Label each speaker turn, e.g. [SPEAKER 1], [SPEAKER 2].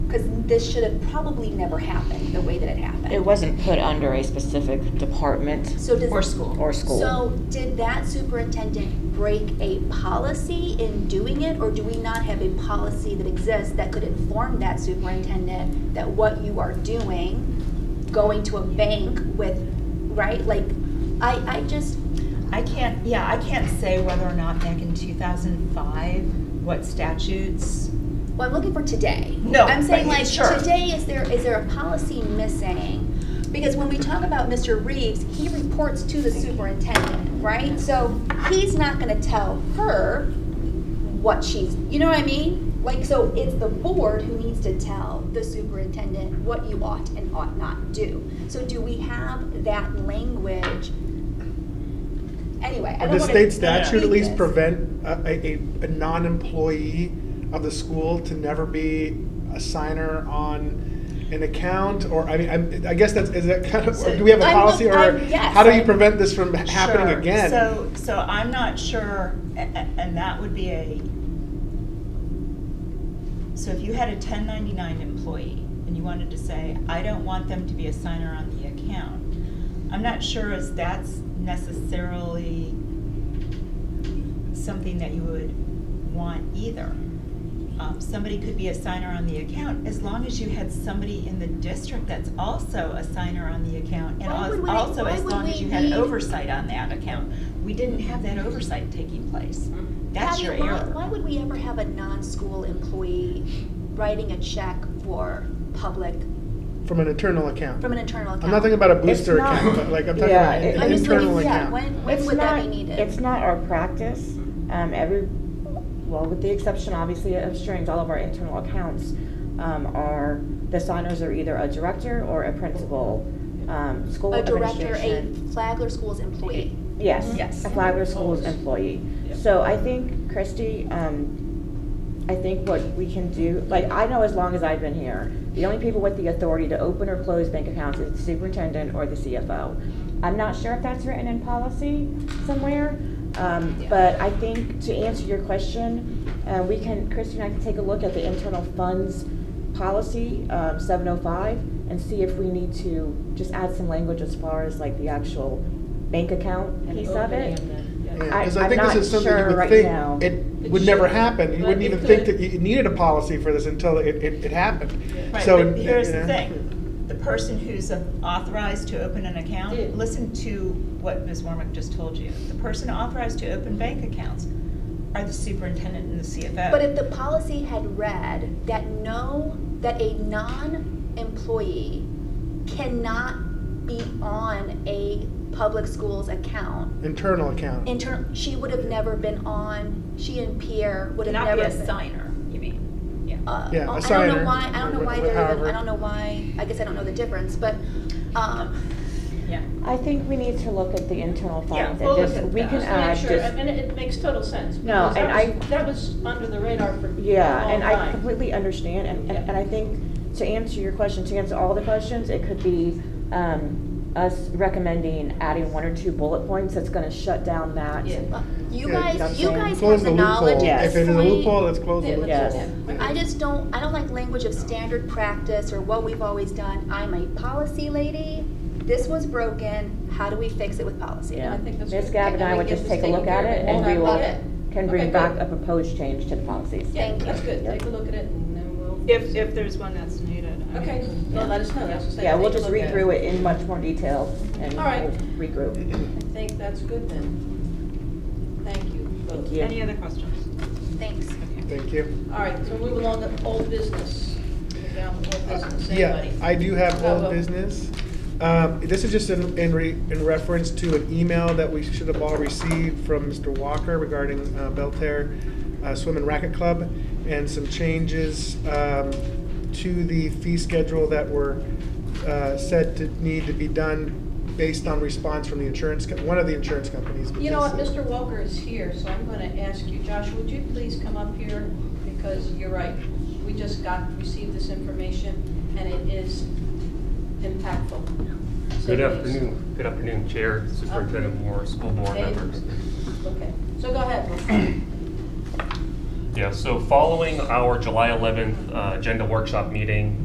[SPEAKER 1] because this should have probably never happened the way that it happened.
[SPEAKER 2] It wasn't put under a specific department
[SPEAKER 1] So does.
[SPEAKER 3] Or school.
[SPEAKER 2] or school.
[SPEAKER 1] So did that superintendent break a policy in doing it, or do we not have a policy that exists that could inform that superintendent that what you are doing, going to a bank with, right, like, I, I just,
[SPEAKER 3] I can't, yeah, I can't say whether or not back in 2005, what statutes.
[SPEAKER 1] well, I'm looking for today.
[SPEAKER 3] No,
[SPEAKER 1] I'm saying
[SPEAKER 3] right,
[SPEAKER 1] like,
[SPEAKER 3] sure.
[SPEAKER 1] today, is there, is there a policy missing? Because when we talk about Mr. Reeves, he reports to the superintendent, right? So he's not gonna tell her what she's, you know what I mean? Like, so it's the board who needs to tell the superintendent what you ought and ought not do. So do we have that language? Anyway, I
[SPEAKER 4] Would
[SPEAKER 1] don't wanna.
[SPEAKER 4] the state
[SPEAKER 1] repeat
[SPEAKER 4] statute at least
[SPEAKER 1] this.
[SPEAKER 4] prevent a, a, a- a non-employee of the school to never be a signer on an account? Or, I mean, I'm- I guess that's, is that kind of,
[SPEAKER 3] So-
[SPEAKER 4] do we have a
[SPEAKER 1] I'm
[SPEAKER 4] policy
[SPEAKER 1] look-
[SPEAKER 4] or
[SPEAKER 1] I'm- yes,
[SPEAKER 4] how do you
[SPEAKER 1] I'm-
[SPEAKER 4] prevent this from happening
[SPEAKER 3] Sure.
[SPEAKER 4] again?
[SPEAKER 3] So, so I'm not sure, a- a- and that would be a, so if you had a 1099 employee and you wanted to say, I don't want them to be a signer on the account, I'm not sure as that's necessarily something that you would want either. Um, Somebody could be a signer on the account, as long as you had somebody in the district that's also a signer on the account, and
[SPEAKER 1] Why would
[SPEAKER 3] als-
[SPEAKER 1] we-
[SPEAKER 3] also
[SPEAKER 1] why
[SPEAKER 3] as
[SPEAKER 1] would
[SPEAKER 3] long
[SPEAKER 1] we
[SPEAKER 3] as you had
[SPEAKER 1] need-
[SPEAKER 3] oversight on that account. We didn't have that oversight taking place. That's
[SPEAKER 1] Abby,
[SPEAKER 3] your
[SPEAKER 1] why-
[SPEAKER 3] error.
[SPEAKER 1] Why would we ever have a non-school employee writing a check for public,
[SPEAKER 4] From an internal account?
[SPEAKER 1] from an internal account?
[SPEAKER 4] I'm not talking about a booster
[SPEAKER 2] not-
[SPEAKER 4] account, but like, I'm talking
[SPEAKER 2] Yeah,
[SPEAKER 4] about
[SPEAKER 2] it-
[SPEAKER 4] an
[SPEAKER 1] I'm just
[SPEAKER 4] internal
[SPEAKER 1] thinking, yeah,
[SPEAKER 4] account.
[SPEAKER 1] when, when
[SPEAKER 2] It's
[SPEAKER 1] would that be
[SPEAKER 2] not-
[SPEAKER 1] needed?
[SPEAKER 2] It's not our practice. Um, every, well, with the exception obviously of strings, all of our internal accounts um, are, the signers are either a director or a principal, um, school
[SPEAKER 1] A director, a
[SPEAKER 2] administration.
[SPEAKER 1] Flagler School's employee.
[SPEAKER 2] Yes.
[SPEAKER 3] Yes.
[SPEAKER 2] A Flagler School's employee. So I think, Christie, um, I think what we can do, like, I know as long as I've been here, the only people with the authority to open or close bank accounts is the superintendent or the CFO. I'm not sure if that's written in policy somewhere, um, but I think to answer your question, uh, we can, Christie and I can take a look at the internal funds policy, um, seven oh five, and see if we need to just add some language as far as like the actual bank account piece of it. I-
[SPEAKER 4] Because
[SPEAKER 2] I'm
[SPEAKER 4] I think this
[SPEAKER 2] not
[SPEAKER 4] is something you
[SPEAKER 2] sure
[SPEAKER 4] would
[SPEAKER 2] right now.
[SPEAKER 4] think, it would never
[SPEAKER 5] should,
[SPEAKER 4] happen. You
[SPEAKER 5] but
[SPEAKER 4] wouldn't
[SPEAKER 5] it
[SPEAKER 4] even think
[SPEAKER 5] could.
[SPEAKER 4] that you you needed a policy for this until it, it it happened.
[SPEAKER 3] Right,
[SPEAKER 4] So,
[SPEAKER 3] but here's the
[SPEAKER 4] yeah.
[SPEAKER 3] thing, the person who's authorized to open an
[SPEAKER 5] Yeah.
[SPEAKER 3] account, listen to what Ms. Warmick just told you. The person authorized to open bank accounts are the superintendent and the CFO.
[SPEAKER 1] But if the policy had read that no, that a non-employee cannot be on a public school's account,
[SPEAKER 4] internal account.
[SPEAKER 1] intern, she would have never been on, she and Pierre would have
[SPEAKER 3] Not
[SPEAKER 1] never
[SPEAKER 3] be
[SPEAKER 1] been.
[SPEAKER 3] a signer, you mean? Yeah.
[SPEAKER 1] uh, oh, I
[SPEAKER 4] Yeah, a
[SPEAKER 1] don't know
[SPEAKER 4] signer,
[SPEAKER 1] why, I don't know
[SPEAKER 4] wh-
[SPEAKER 1] why
[SPEAKER 4] wh-
[SPEAKER 1] they're even,
[SPEAKER 4] however.
[SPEAKER 1] I don't know why, I guess I don't know the difference, but, um,
[SPEAKER 3] Yeah.
[SPEAKER 2] I think we need to look at the internal
[SPEAKER 3] Yeah,
[SPEAKER 2] funds
[SPEAKER 3] we'll
[SPEAKER 2] and
[SPEAKER 3] look
[SPEAKER 2] just,
[SPEAKER 3] at
[SPEAKER 2] we
[SPEAKER 3] that.
[SPEAKER 2] can
[SPEAKER 3] Just
[SPEAKER 2] add
[SPEAKER 5] Just to make sure,
[SPEAKER 2] Uh, just,
[SPEAKER 5] I mean, it makes total sense.
[SPEAKER 2] No,
[SPEAKER 5] because
[SPEAKER 2] and
[SPEAKER 5] that
[SPEAKER 2] I-
[SPEAKER 5] was- That was under the radar for a long
[SPEAKER 2] yeah, and I
[SPEAKER 5] time.
[SPEAKER 2] completely understand, and,
[SPEAKER 5] Yeah.
[SPEAKER 2] and and I think to answer your question, to answer all the questions, it could be, um, us recommending adding one or two bullet points that's gonna shut down that.
[SPEAKER 5] Yeah.
[SPEAKER 1] uh, you
[SPEAKER 4] Yeah,
[SPEAKER 1] guys,
[SPEAKER 2] that's
[SPEAKER 1] you
[SPEAKER 2] fine.
[SPEAKER 1] guys
[SPEAKER 4] Close
[SPEAKER 1] have
[SPEAKER 4] the
[SPEAKER 1] the knowledge
[SPEAKER 4] loophole.
[SPEAKER 1] at
[SPEAKER 2] Yes.
[SPEAKER 4] If it
[SPEAKER 1] this
[SPEAKER 4] is a loophole,
[SPEAKER 1] point.
[SPEAKER 4] let's close the
[SPEAKER 5] Yeah,
[SPEAKER 4] loophole.
[SPEAKER 5] let's-
[SPEAKER 2] Yes.
[SPEAKER 4] Yeah.
[SPEAKER 1] I just don't, I don't like language of standard practice or what we've always done, I'm a policy lady, this was broken, how do we fix it with policy?
[SPEAKER 2] Yeah.
[SPEAKER 5] I think that's
[SPEAKER 2] Ms.
[SPEAKER 5] good.
[SPEAKER 2] Gab and
[SPEAKER 5] And
[SPEAKER 2] I
[SPEAKER 5] we
[SPEAKER 2] would
[SPEAKER 5] get
[SPEAKER 2] just
[SPEAKER 5] this
[SPEAKER 2] take a look
[SPEAKER 5] taken
[SPEAKER 2] at
[SPEAKER 5] care of.
[SPEAKER 2] it
[SPEAKER 5] We'll
[SPEAKER 2] and we
[SPEAKER 5] have
[SPEAKER 2] will,
[SPEAKER 5] it.
[SPEAKER 2] can
[SPEAKER 5] Okay,
[SPEAKER 2] bring back
[SPEAKER 5] good.
[SPEAKER 2] a proposed change to the policies.
[SPEAKER 1] Thank you.
[SPEAKER 5] That's good,
[SPEAKER 2] Yeah.
[SPEAKER 5] take a look at it and then we'll.
[SPEAKER 3] If, if there's one that's needed. I mean-
[SPEAKER 5] Okay, well, let us know, that's what I said.
[SPEAKER 2] Yeah, we'll
[SPEAKER 5] Take a
[SPEAKER 2] just
[SPEAKER 5] look
[SPEAKER 2] read
[SPEAKER 5] at
[SPEAKER 2] through it in much more detail and
[SPEAKER 5] All right.
[SPEAKER 2] we'll regroup.
[SPEAKER 5] I think that's good then. Thank you both.
[SPEAKER 2] Thank you.
[SPEAKER 3] Any other questions?
[SPEAKER 1] Thanks.
[SPEAKER 4] Thank you.
[SPEAKER 5] All right, so move along to old business. Move down to old business,
[SPEAKER 4] Yeah,
[SPEAKER 5] anybody?
[SPEAKER 4] I do have
[SPEAKER 5] Oh,
[SPEAKER 4] old
[SPEAKER 5] well.
[SPEAKER 4] business. Um, This is just in, in re, in reference to an email that we should have all received from Mr. Walker regarding uh, Belter uh, Swim and Racket Club and some changes um, to the fee schedule that were uh, said to need to be done based on response from the insurance, co- one of the insurance companies. which
[SPEAKER 5] You know what,
[SPEAKER 4] is-
[SPEAKER 5] Mr. Walker is here, so I'm gonna ask you, Josh, would you please come up here? Because you're right, we just got, received this information, and it is impactful. So
[SPEAKER 6] Good
[SPEAKER 5] please.
[SPEAKER 6] afternoon, good afternoon, Chair, Superintendent Moore, school board
[SPEAKER 5] Hey.
[SPEAKER 6] members.
[SPEAKER 5] Okay, so go ahead. Will.
[SPEAKER 6] Yeah, Yeah, so following our July 11th uh, agenda workshop meeting,